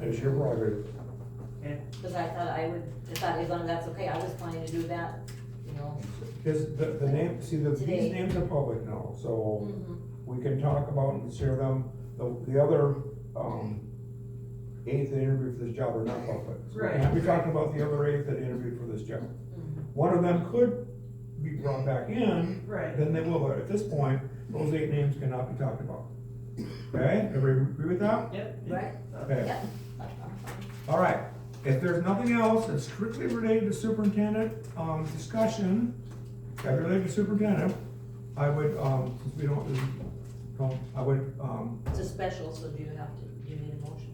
It's your prerogative. Cause I thought I would, I thought as long as that's okay, I was planning to do that, you know. Because the, the name, see, the, Today. these names are public now, so Mhm. Mm-hmm. we can talk about and share them. The, the other, um, eight that interviewed for this job are not public. So Right. We're talking about the other eight that interviewed for this job. Mhm. One of them could be brought back in, Right. then they will, but at this point, those eight names cannot be talked about. Okay, everybody agree with that? Yep. Right? Okay, Yeah. all right. If there's nothing else that's strictly related to superintendent, um, discussion, that related to superintendent, I would, um, since we don't, um, I would, um, It's a special, so do you have to, do you need a motion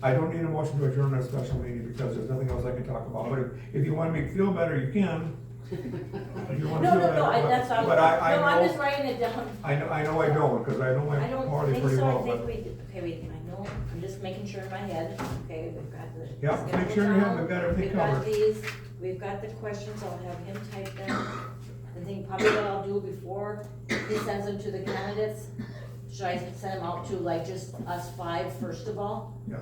for? I don't need a motion to adjourn our special meeting because there's nothing else I can talk about, but if- if you want me to feel better, you can. If Oh, you No, wanna feel no, no, better, I, but- that's, I'm, no, But I, I know. I'm just writing it down. I know, I know I don't, because I know my I don't party think pretty so, I well, think but, we, did- okay, wait, I know, I'm just making sure in my head, okay, we've got the. yeah, make schedule sure you have, down, we've got everything We've got covered. these, we've got the questions, I'll have him type them. The thing probably what I'll do before he sends them to the candidates, should I send them out to like just us five first of all? Yeah.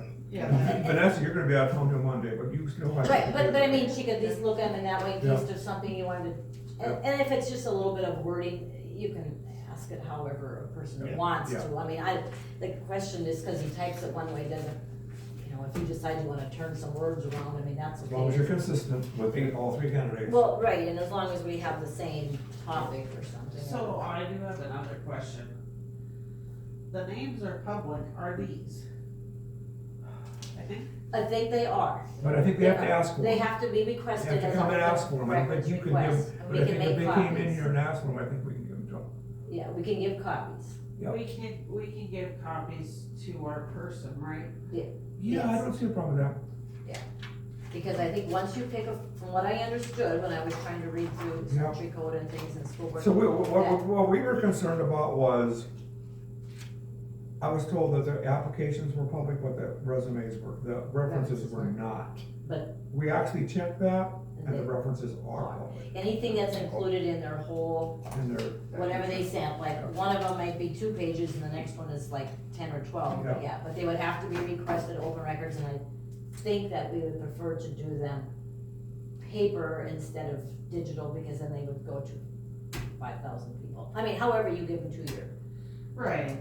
Vanessa, you're gonna be out of town till Monday, but you still have. Right, but, but I mean, she could at least look at them in that way, in case Yeah. there's something you wanted, and, and if it's just a little bit of wording, you can ask it however a person Yeah. wants Yeah. to. I mean, I, the question is, cause he types it one way, doesn't, you know, if you decide you wanna turn some words around, I mean, that's As okay. long as you're consistent with the- all three candidates. Well, right, and as long as we have the same topic or something. So I do have another question. The names are public, are these? I think, I think they are. But I think they have to ask for They them. have to be They requested have to as a come and ask for them. I don't records think you can request. give, and but we I can think if make they came in copies. here and asked for them, I think we can give them to them. Yeah, we can give copies. Yep. we can, we can give copies to our person, right? Yeah, I Yes. don't see a problem with that. Because I think once you pick a, from what I understood when I was trying to read through Yeah. country code and things in school board. So we- what, Yeah. what, what we were concerned about was, I was told that the applications were public, but the resumes were, the references References were weren't. not. But- We actually checked that, and the that references are public, Anything that's included in their whole, and they're. whatever they sent, like, one of them might be two pages and the next one is like ten or twelve, Yeah. yeah, but they would have to be requested open records and I think that we would prefer to do them paper instead of digital, because then they would go to five thousand people. I mean, however you give them to your. Right.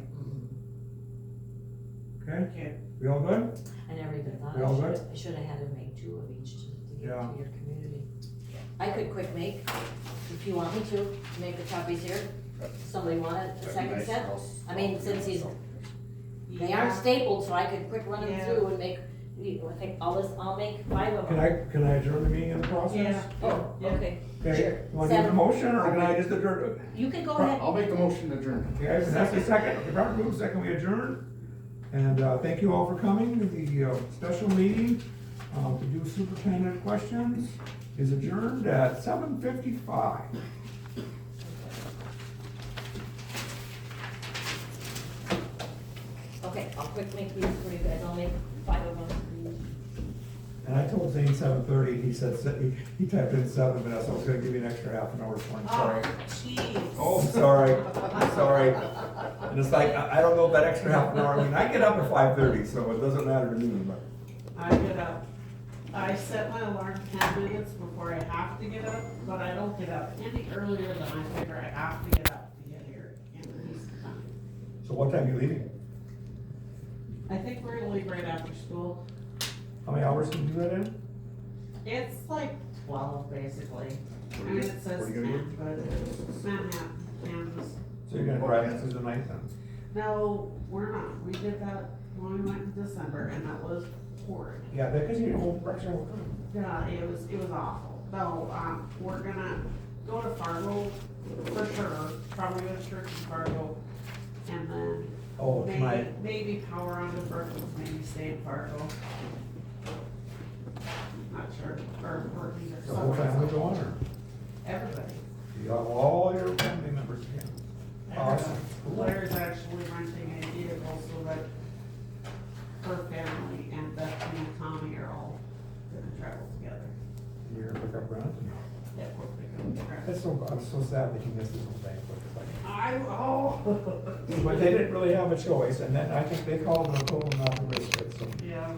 Okay, Okay, we all good? I never even thought, We all I should, I should have had to make two of each to, to give Yeah. to your community. I could quick make, if you want me to, to make the copies here, somebody want it, a second set? I mean, since he's- They aren't yeah, stapled, so I could quick run them Yeah. through and make, you- I think all this, I'll make five of Can them. I, can I adjourn the meeting in the yeah, process? Oh, Yeah. okay, Okay, Sure. you want to do the Seven. motion, or can I just adjourn? you can go ahead, I'll make the motion to adjourn. Okay, so that's the second, Okay, Robert moves, second, we adjourn. And, uh, thank you all for coming, to the, uh, special meeting, um, to do superintendent questions is adjourned at seven fifty-five. okay, I'll quick make these for you guys, I'll make five of them. And I told Zane seven thirty, he said, se- he- he typed in seven, but I was gonna give you an extra half an hour for him, sorry. Oh, jeez. Oh, sorry, sorry. And it's like, I, I don't know if that extra half an hour, I mean, I get up at five thirty, so it doesn't matter to me, but. I get up. I set my alarm ten minutes before I have to get up, but I don't get up any earlier than I figure I have to get up to get here in these times. So what time are you leaving? I think we're gonna leave right after school. How many hours can you do that in? It's like twelve, basically. I Where you mean, go- it says where you gonna ten, but it's Manhattan, Kansas. So you're gonna drive in through the night then? No, we're not. We did that when we went in December and that was horrid. Yeah, because you didn't hold pressure. Yeah, it was, it was awful. No, um, we're gonna go to Fargo for sure, probably go to church in Fargo. And then Oh, it's my, maybe, maybe power on to Brookings, maybe stay in Fargo. Not sure, or Brookings or the whole family somewhere. going or? Everybody. You got all your family members again? Awesome. Blair's actually renting a vehicle so that her family and Bethany and Tommy are all gonna travel together. You're gonna pick up Brent? Yeah, we're picking up the rest. That's so, I'm so sad that you missed this whole banquet. It's like- I, oh. But they didn't really have a choice and then I think they called and told them not to risk it, so. Yeah.